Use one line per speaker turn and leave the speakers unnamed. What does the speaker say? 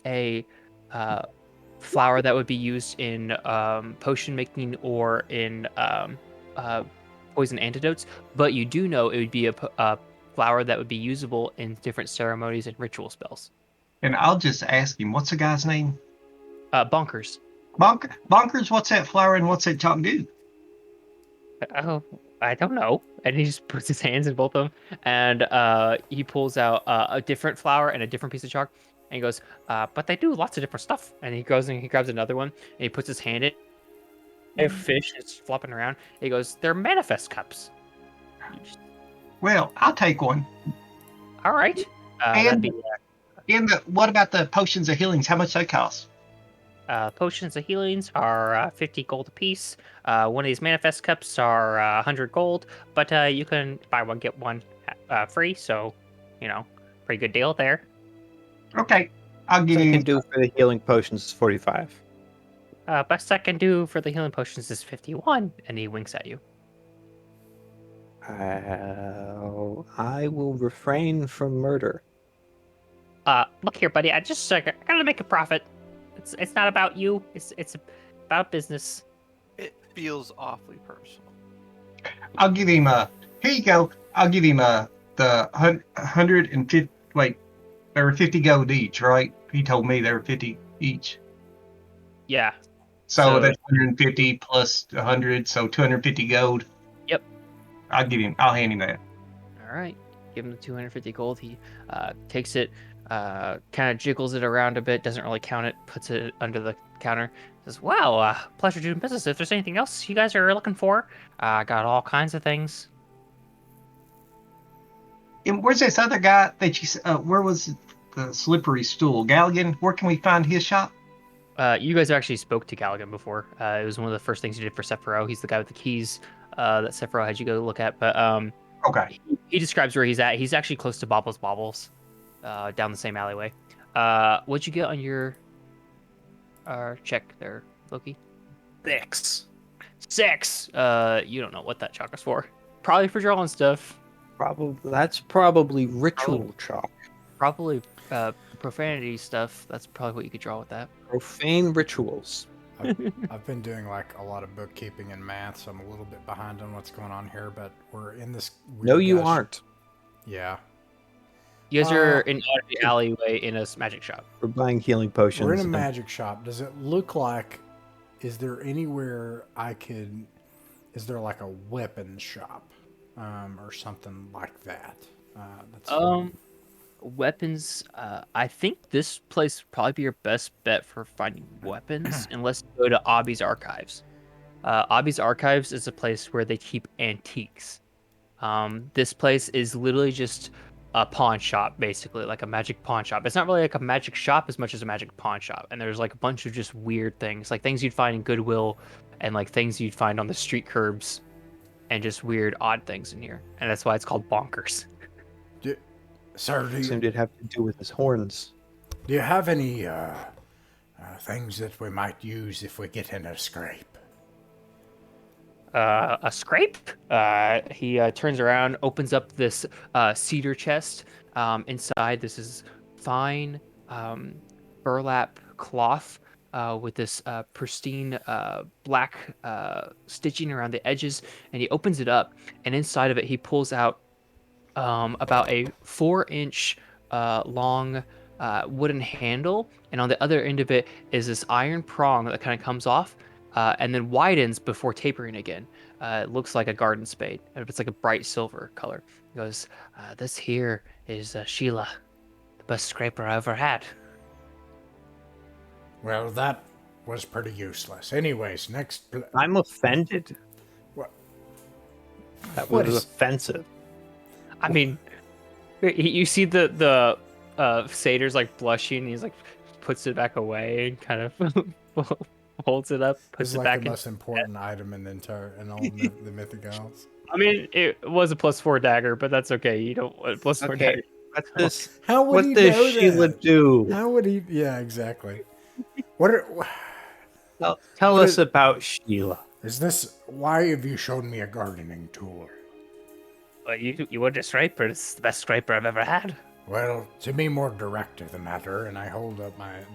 a uh, flower that would be used in um, potion making or in um, uh, poison antidotes, but you do know it would be a, p- a flower that would be usable in different ceremonies and ritual spells.
And I'll just ask him, what's the guy's name?
Uh, bonkers.
Bonk- bonkers, what's that flower and what's that chop do?
Oh, I don't know. And he just puts his hands in both of them, and uh, he pulls out uh, a different flower and a different piece of chalk, and he goes, uh, "But they do lots of different stuff." And he goes and he grabs another one, and he puts his hand in. A fish is flopping around. He goes, "They're manifest cups."
Well, I'll take one.
All right. Uh, that'd
And-
be,
And the, what about the potions of healings? How much they cost?
uh, potions of healings are uh, 50 gold apiece. Uh, one of these manifest cups are uh, 100 gold, but uh, you can buy one, get one uh, free. So, you know, pretty good deal there.
Okay, I'll give
I
you.
can do for the healing potions is 45.
Uh, best I can do for the healing potions is 51. And he winks at you.
Uh, I will refrain from murder.
Uh, look here, buddy. I just uh, I gotta make a profit. It's it's not about you. It's it's about business.
It feels awfully personal.
I'll give him a. Here you go. I'll give him a the hun- hundred and fifty. Wait, there were fifty gold each, right? He told me there were fifty each.
Yeah.
So,
So-
that's one hundred and fifty plus a hundred, so two hundred fifty gold.
Yep.
I'll give him. I'll hand him that.
All right. Give him the 250 gold. He uh, takes it, uh, kind of jiggles it around a bit, doesn't really count it, puts it under the counter. Says, "Wow, uh, pleasure doing business. If there's anything else you guys are looking for, uh, I got all kinds of things."
And where's this other guy that you? s- Uh, where was the slippery stool? Galligan. Where can we find his shop?
Uh, you guys actually spoke to Galligan before. Uh, it was one of the first things you did for Sephiroth. He's the guy with the keys uh, that Sephiroth had you go look at. But um,
Okay.
he, he describes where he's at. He's actually close to Bobble's Bobbles, uh, down the same alleyway. Uh, what'd you get on your uh, check there, Loki? Six. Six. Uh, you don't know what that chalk is for. Probably for drawing stuff.
Probably that's probably
Oh.
ritual chalk,
Probably uh, profanity stuff. That's probably what you could draw with that.
profane rituals.
I've been doing like a lot of bookkeeping and math, so I'm a little bit behind on what's going on here. But we're in this. Weird
No, you
gush-
aren't.
Yeah,
You guys
Uh,
are in an alleyway in a magic shop.
We're buying healing potions.
we're in a
and-
magic shop. Does it look like? Is there anywhere I could? Is there like a weapon shop, um, or something like that? Uh, that's
Um, weapons. Uh, I think this place would probably be your best bet for finding weapons, unless you go to Obby's Archives. Uh, Obby's Archives is a place where they keep antiques. Um, this place is literally just a pawn shop, basically, like a magic pawn shop. It's not really like a magic shop as much as a magic pawn shop. And there's like a bunch of just weird things, like things you'd find in Goodwill, and like things you'd find on the street curbs, and just weird, odd things in here. And that's why it's called Bonkers.
Do, sir, do you,
Assumed it'd have to do with his horns.
do you have any uh, uh, things that we might use if we get in a scrape?
uh, a scrape. Uh, he uh, turns around, opens up this uh, cedar chest. Um, inside, this is fine um, burlap cloth uh, with this uh, pristine uh, black uh, stitching around the edges. And he opens it up, and inside of it, he pulls out um, about a four inch uh, long uh, wooden handle, and on the other end of it is this iron prong that kind of comes off uh, and then widens before tapering again. Uh, it looks like a garden spade, and it's like a bright silver color. He goes, uh, This here is uh, Sheila, the best scraper I ever had.
Well, that was pretty useless. Anyways, next. Pl-
I'm offended.
What?
That
What
was
is-
offensive.
I mean, y- you see the, the uh, satyr's like blushing, and he's like, puts it back away and kind of holds it up,
This
puts
is
it
like
back
the
in.
most important item in the entire in all myth, the mythic isles.
I mean, it was a plus four dagger, but that's okay. You don't want plus four
Okay.
dagger.
What's this?
How would
what
he
does
know
Sheila
that?
do?
How would he? Yeah, exactly. What are,
Tell, tell
What
us
is-
about Sheila.
is this? Why have you shown me a gardening tool?
Well, you you want a scraper? It's the best scraper I've ever had.
Well, to be more direct of the matter, er, and I hold up my